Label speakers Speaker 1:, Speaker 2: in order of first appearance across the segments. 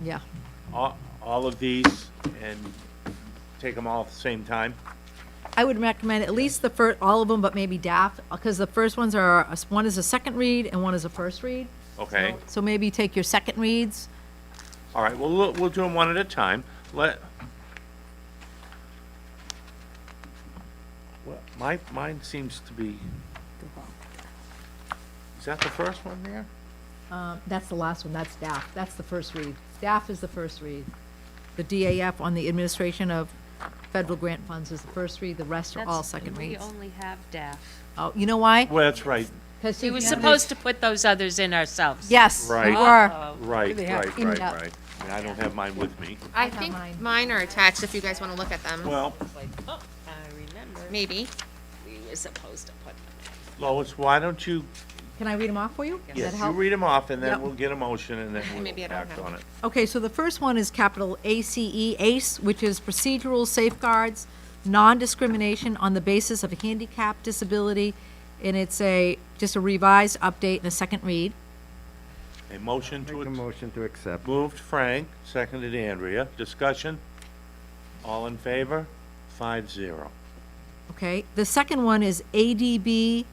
Speaker 1: Yeah,
Speaker 2: all, all of these and take them all at the same time?
Speaker 1: I would recommend at least the first, all of them, but maybe DAF, because the first ones are, uh, one is a second read and one is a first read.
Speaker 2: Okay,
Speaker 1: So maybe take your second reads.
Speaker 2: all right, well, we'll, we'll do them one at a time. Let. Well, my, mine seems to be. Is that the first one there?
Speaker 1: Um, That's the last one, that's DAF, that's the first read. DAF is the first read. The DAF on the administration of federal grant funds is the first read, the rest are all
Speaker 3: That's-
Speaker 1: second
Speaker 3: We
Speaker 1: reads.
Speaker 3: only have DAF.
Speaker 1: Oh, you know why?
Speaker 2: Well, that's right,
Speaker 1: Because
Speaker 3: We were supposed to put those others in ourselves.
Speaker 1: Yes,
Speaker 2: Right.
Speaker 1: you are.
Speaker 4: Oh.
Speaker 3: Uh-oh.
Speaker 2: right, right,
Speaker 1: in
Speaker 2: right,
Speaker 1: that.
Speaker 2: right. I mean, I don't have mine with me.
Speaker 4: I
Speaker 1: have
Speaker 4: think
Speaker 1: mine.
Speaker 4: mine are attached if you guys want to look at them.
Speaker 2: Well,
Speaker 3: Like, oh, I remember,
Speaker 4: Maybe.
Speaker 3: we were supposed to put them
Speaker 2: Lois, why don't you,
Speaker 1: Can I read them off for you? Does that
Speaker 2: yes, you
Speaker 1: help?
Speaker 2: read them off and
Speaker 1: Yep.
Speaker 2: then we'll get a motion and then
Speaker 4: Maybe
Speaker 2: we'll
Speaker 4: I don't
Speaker 2: act
Speaker 4: have
Speaker 2: on
Speaker 4: it.
Speaker 2: it.
Speaker 1: Okay, so the first one is capital E, ACE, ACE, which is procedural safeguards, non-discrimination on the basis of a handicap disability, and it's a, just a revised update and a second read.
Speaker 2: A motion to.
Speaker 5: Make a
Speaker 2: accept.
Speaker 5: motion to accept.
Speaker 2: Moved Frank, seconded Andrea. Discussion? All in favor? Five zero.
Speaker 1: Okay, the second one is ADB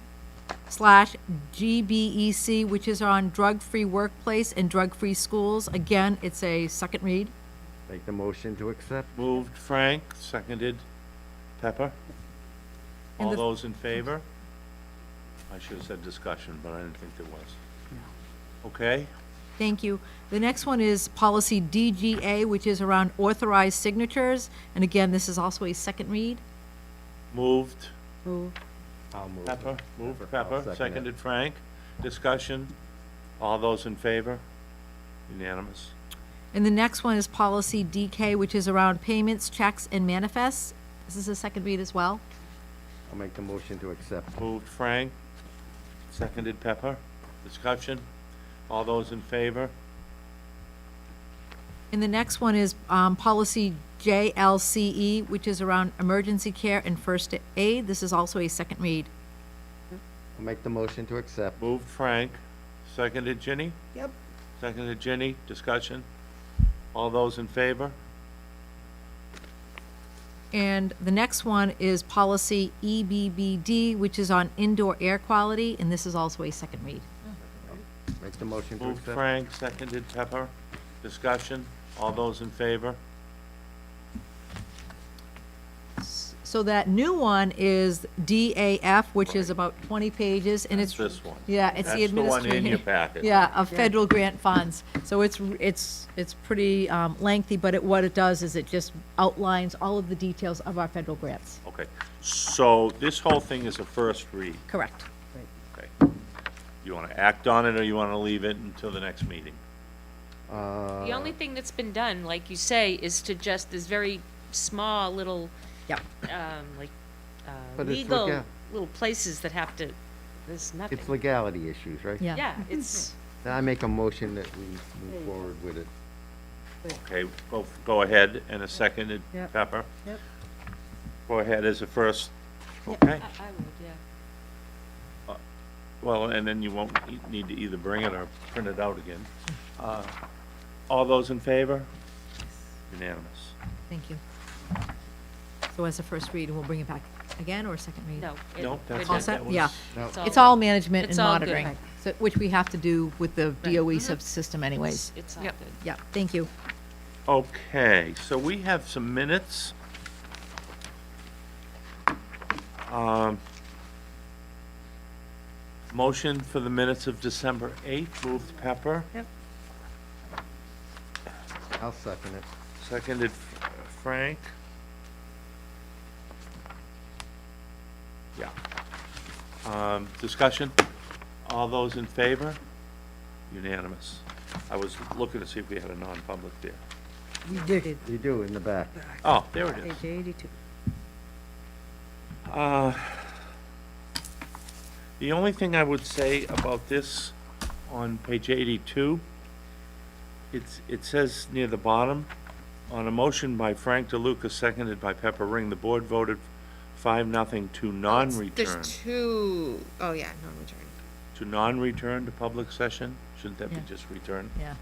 Speaker 1: slash GBEC, which is on drug-free workplace and drug-free schools. Again, it's a second read.
Speaker 5: Make the motion to accept.
Speaker 2: Moved Frank, seconded Pepper.
Speaker 1: And
Speaker 2: All
Speaker 1: the-
Speaker 2: those in favor? I should have said discussion, but I didn't think there was. Okay,
Speaker 1: Thank you. The next one is policy DGA, which is around authorized signatures, and again, this is also a second read.
Speaker 2: moved
Speaker 1: Ooh.
Speaker 5: I'll move.
Speaker 2: Pepper, moved
Speaker 5: Pepper,
Speaker 2: Pepper,
Speaker 5: I'll second it.
Speaker 2: seconded Frank. Discussion? All those in favor? Unanimous.
Speaker 1: And the next one is policy DK, which is around payments, checks, and manifests. This is a second read as well.
Speaker 5: I'll make the motion to accept.
Speaker 2: Moved Frank, seconded Pepper. Discussion? All those in favor?
Speaker 1: And the next one is um, policy JLCE, E, which is around emergency care and first aid. This is also a second read.
Speaker 5: I'll make the motion to accept.
Speaker 2: Moved Frank, seconded Ginny? Yep. Seconded Ginny, discussion? All those in favor?
Speaker 1: And the next one is policy E EBBD, which is on indoor air quality, and this is also a second read.
Speaker 5: Make the motion to
Speaker 2: Moved
Speaker 5: accept.
Speaker 2: Frank, seconded Pepper, discussion? All those in favor?
Speaker 1: So that new one is DAF, which is about 20 pages, and it's.
Speaker 2: That's this one.
Speaker 1: Yeah, it's the
Speaker 2: That's the one
Speaker 1: administration.
Speaker 2: in your packet.
Speaker 1: Yeah, of federal grant funds. So it's, it's, it's pretty um, lengthy, but it, what it does is it just outlines all of the details of our federal grants.
Speaker 2: Okay, so this whole thing is a first read,
Speaker 1: Correct.
Speaker 2: okay? You want to act on it or you want to leave it until the next meeting?
Speaker 5: Uh,
Speaker 3: in. The only thing that's been done, like you say, is to just this very small little,
Speaker 1: Yep.
Speaker 3: um, like, uh,
Speaker 5: But it's
Speaker 3: legal,
Speaker 5: legal.
Speaker 3: little places that have to, there's nothing.
Speaker 5: It's legality issues, right?
Speaker 1: Yeah.
Speaker 3: Yeah, it's,
Speaker 5: Then I make a motion that we move forward with it.
Speaker 2: Okay, go, go ahead, and a seconded
Speaker 1: Yep.
Speaker 2: Pepper?
Speaker 1: Yep.
Speaker 2: Go ahead as a first, okay?
Speaker 3: I I would, yeah.
Speaker 2: Well, and then you won't e- need to either bring it or print it out again. Uh, All those in favor? Unanimous.
Speaker 1: Thank you. So as a first read, and we'll bring it back again or a second read?
Speaker 3: No. it-
Speaker 2: No, that's.
Speaker 3: we're
Speaker 1: All
Speaker 3: done.
Speaker 1: set?
Speaker 2: that was-
Speaker 1: Yeah.
Speaker 5: No,
Speaker 3: It's
Speaker 1: It's all management
Speaker 3: It's
Speaker 1: and
Speaker 3: all good.
Speaker 1: monitoring, so- which we have to do with the DOE sub- system anyways.
Speaker 3: It's all good.
Speaker 1: Yeah, thank you.
Speaker 2: Okay, so we have some minutes. Um, Motion for the minutes of December 8th, moved Pepper,
Speaker 5: I'll second it.
Speaker 2: seconded F- Frank. Yeah. Um, Discussion? All those in favor? Unanimous. I was looking to see if we had a non-public there.
Speaker 5: You do, in the back.
Speaker 2: Oh, there it is. Uh, The only thing I would say about this on page 82, it's, it says near the bottom, on a motion by Frank DeLuca, seconded by Pepper Ring, the board voted 5-0 to non-return,
Speaker 4: There's two oh yeah, non return.
Speaker 2: to non-return to public session? Shouldn't that be
Speaker 1: Yeah.
Speaker 2: just return?
Speaker 1: Yeah.